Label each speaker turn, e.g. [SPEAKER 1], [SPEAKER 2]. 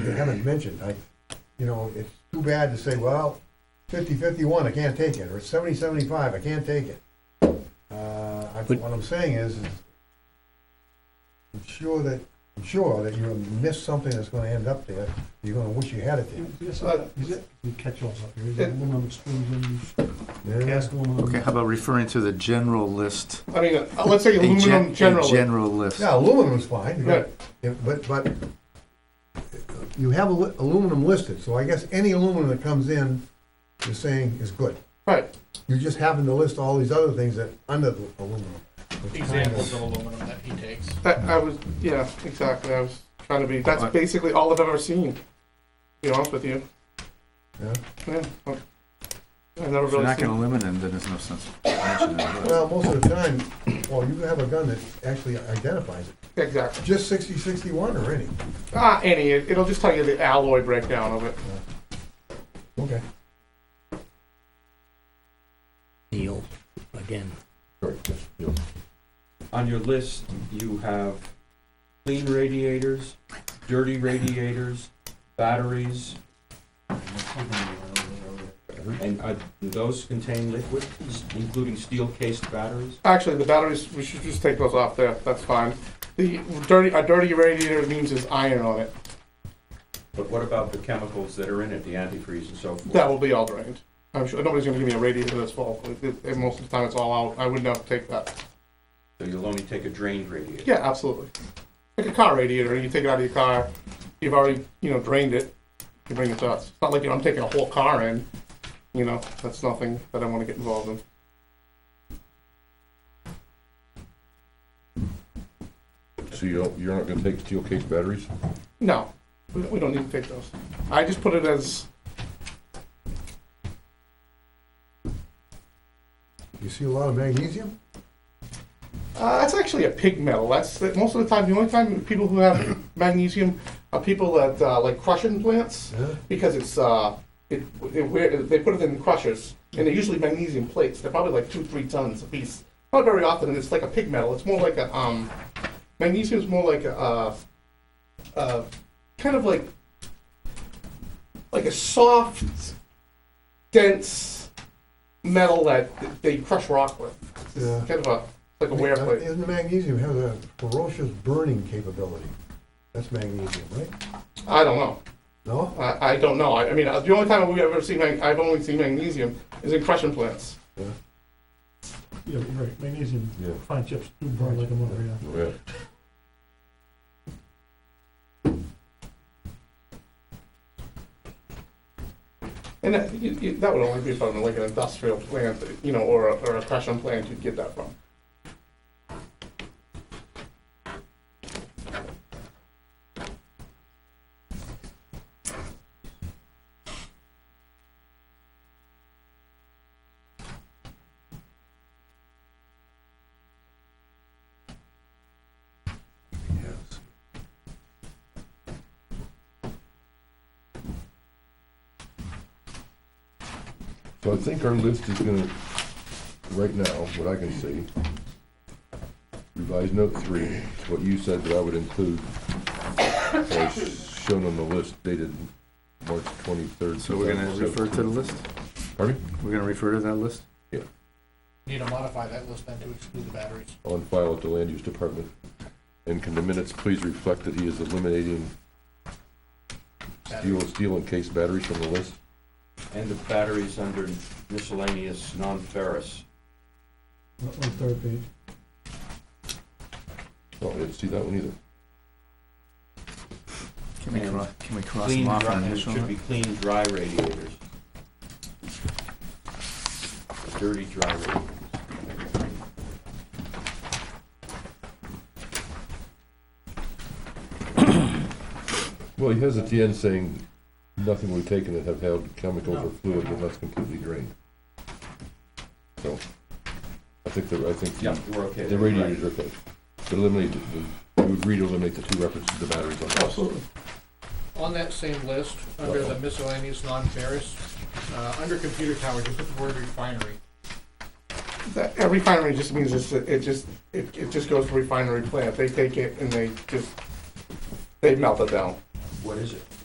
[SPEAKER 1] they haven't mentioned, I, you know, it's too bad to say, well, fifty fifty-one, I can't take it, or seventy seventy-five, I can't take it. Uh, I-
[SPEAKER 2] But-
[SPEAKER 1] what I'm saying is, is I'm sure that, I'm sure that you'll miss something that's gonna end up there, you're gonna wish you had it
[SPEAKER 3] Yes, uh, is it, you catch all up here, is it aluminum exclusions,
[SPEAKER 1] there. Yeah.
[SPEAKER 3] cast aluminum?
[SPEAKER 2] Okay, how about referring to the general list?
[SPEAKER 4] I mean, uh, let's say
[SPEAKER 2] A gen- A
[SPEAKER 4] aluminum generally.
[SPEAKER 2] general list.
[SPEAKER 1] Yeah, aluminum's fine, you got-
[SPEAKER 4] Right.
[SPEAKER 1] yeah, but, but you have alu- aluminum listed, so I guess any aluminum that comes in, you're saying is good.
[SPEAKER 4] Right,
[SPEAKER 1] You just happen to list all these other things that under the aluminum. which kind of-
[SPEAKER 5] examples of aluminum that he takes.
[SPEAKER 4] that, I was, yeah, exactly, I was trying to be, that's
[SPEAKER 2] Alright.
[SPEAKER 4] basically all I've ever seen, to be honest with you.
[SPEAKER 1] Yeah.
[SPEAKER 4] Yeah, I- I've never
[SPEAKER 2] If you're
[SPEAKER 4] really
[SPEAKER 2] not gonna
[SPEAKER 4] seen,
[SPEAKER 2] limit them, then there's no sense mentioning it.
[SPEAKER 1] Well, most of the time, well, you have a gun that actually identifies it.
[SPEAKER 4] exactly.
[SPEAKER 1] Just sixty sixty-one or any?
[SPEAKER 4] Ah, any, it- it'll just tell you the alloy breakdown of it.
[SPEAKER 1] Okay.
[SPEAKER 6] Neil, again.
[SPEAKER 7] On your list, you have clean radiators, dirty radiators, batteries, and uh, do those contain liquids, including steel-cased batteries?
[SPEAKER 4] Actually, the batteries, we should just take those off there, that's fine. The dirty, a dirty radiator means there's iron on it,
[SPEAKER 7] But what about the chemicals that are in it, the antifreeze and so forth?
[SPEAKER 4] that will be all drained. I'm sure, nobody's gonna give me a radiator that's full, It- it- and most of the time it's all out, I would not take that.
[SPEAKER 7] So you'll only take a drained radiator?
[SPEAKER 4] Yeah, absolutely. Like a car radiator, you take it out of your car, you've already, you know, drained it, you bring it to us. It's not like, you know, I'm taking a whole car in, you know, that's nothing that I wanna get involved in.
[SPEAKER 8] So you don't, you're not gonna take steel case batteries?
[SPEAKER 4] No, we we don't need to take those. I just put it as,
[SPEAKER 1] You see a lot of magnesium?
[SPEAKER 4] Uh, that's actually a pig metal. That's that most of the time. The only time people who have magnesium are people that uh, like crushing plants
[SPEAKER 1] Yeah.
[SPEAKER 4] because it's uh, it, it where they put it in crushers and they're usually magnesium plates. They're probably like two three tons a piece. Not very often, and it's like a pig metal. It's more like a um, magnesium is more like a uh, uh, kind of like like a soft, dense metal that they crush rock with. It's
[SPEAKER 1] Yeah.
[SPEAKER 4] kind of a like a wear plate.
[SPEAKER 1] Isn't the magnesium has a ferocious burning capability? That's magnesium, right?
[SPEAKER 4] I don't know.
[SPEAKER 1] No?
[SPEAKER 4] I, I don't know. I, I mean, uh, the only time we've ever seen, mag- I've only seen magnesium is in crushing plants.
[SPEAKER 3] Yeah, right, magnesium,
[SPEAKER 8] Yeah.
[SPEAKER 3] fine chips, do burn like a motor, yeah.
[SPEAKER 8] Yeah.
[SPEAKER 4] And that, you, you, that would only be from like an industrial plant, you know, or a, or a crushing plant you'd get that from.
[SPEAKER 8] So I think our list is gonna, right now, what I can see, revised note three, it's what you said that I would include, as shown on the list dated March twenty-third.
[SPEAKER 2] So we're gonna refer to the list?
[SPEAKER 8] Pardon? me?
[SPEAKER 2] We're gonna refer to that list?
[SPEAKER 5] Need to modify that list then to exclude the batteries.
[SPEAKER 8] On file at the land use department. And can the minutes please reflect that he is eliminating steel, steel encased batteries from the list?
[SPEAKER 7] And the batteries under miscellaneous non-ferrous?
[SPEAKER 3] On on third page,
[SPEAKER 8] Oh, I didn't see that one either.
[SPEAKER 2] Can we
[SPEAKER 7] And
[SPEAKER 2] cross, can we cross
[SPEAKER 7] Clean,
[SPEAKER 2] them off
[SPEAKER 7] dry-
[SPEAKER 2] on
[SPEAKER 7] and it
[SPEAKER 2] initial?
[SPEAKER 7] should be clean, dry radiators. Dirty, dry radiators.
[SPEAKER 8] Well, he has at the end saying, nothing we've taken that have held chemicals or fluid unless completely drained. So, I think that, I think
[SPEAKER 7] Yeah,
[SPEAKER 8] the-
[SPEAKER 7] we're okay.
[SPEAKER 8] the
[SPEAKER 7] there, right.
[SPEAKER 8] radiators are okay. But eliminate, the- you would read eliminate the two references to the batteries on the list.
[SPEAKER 3] absolutely.
[SPEAKER 5] On that same list, under the miscellaneous non-ferrous, uh, under computer tower, just put the word refinery.
[SPEAKER 4] That, a refinery just means it's, it just, it, it just goes to refinery plant. They take it and they just, they melt it down.
[SPEAKER 7] What is it?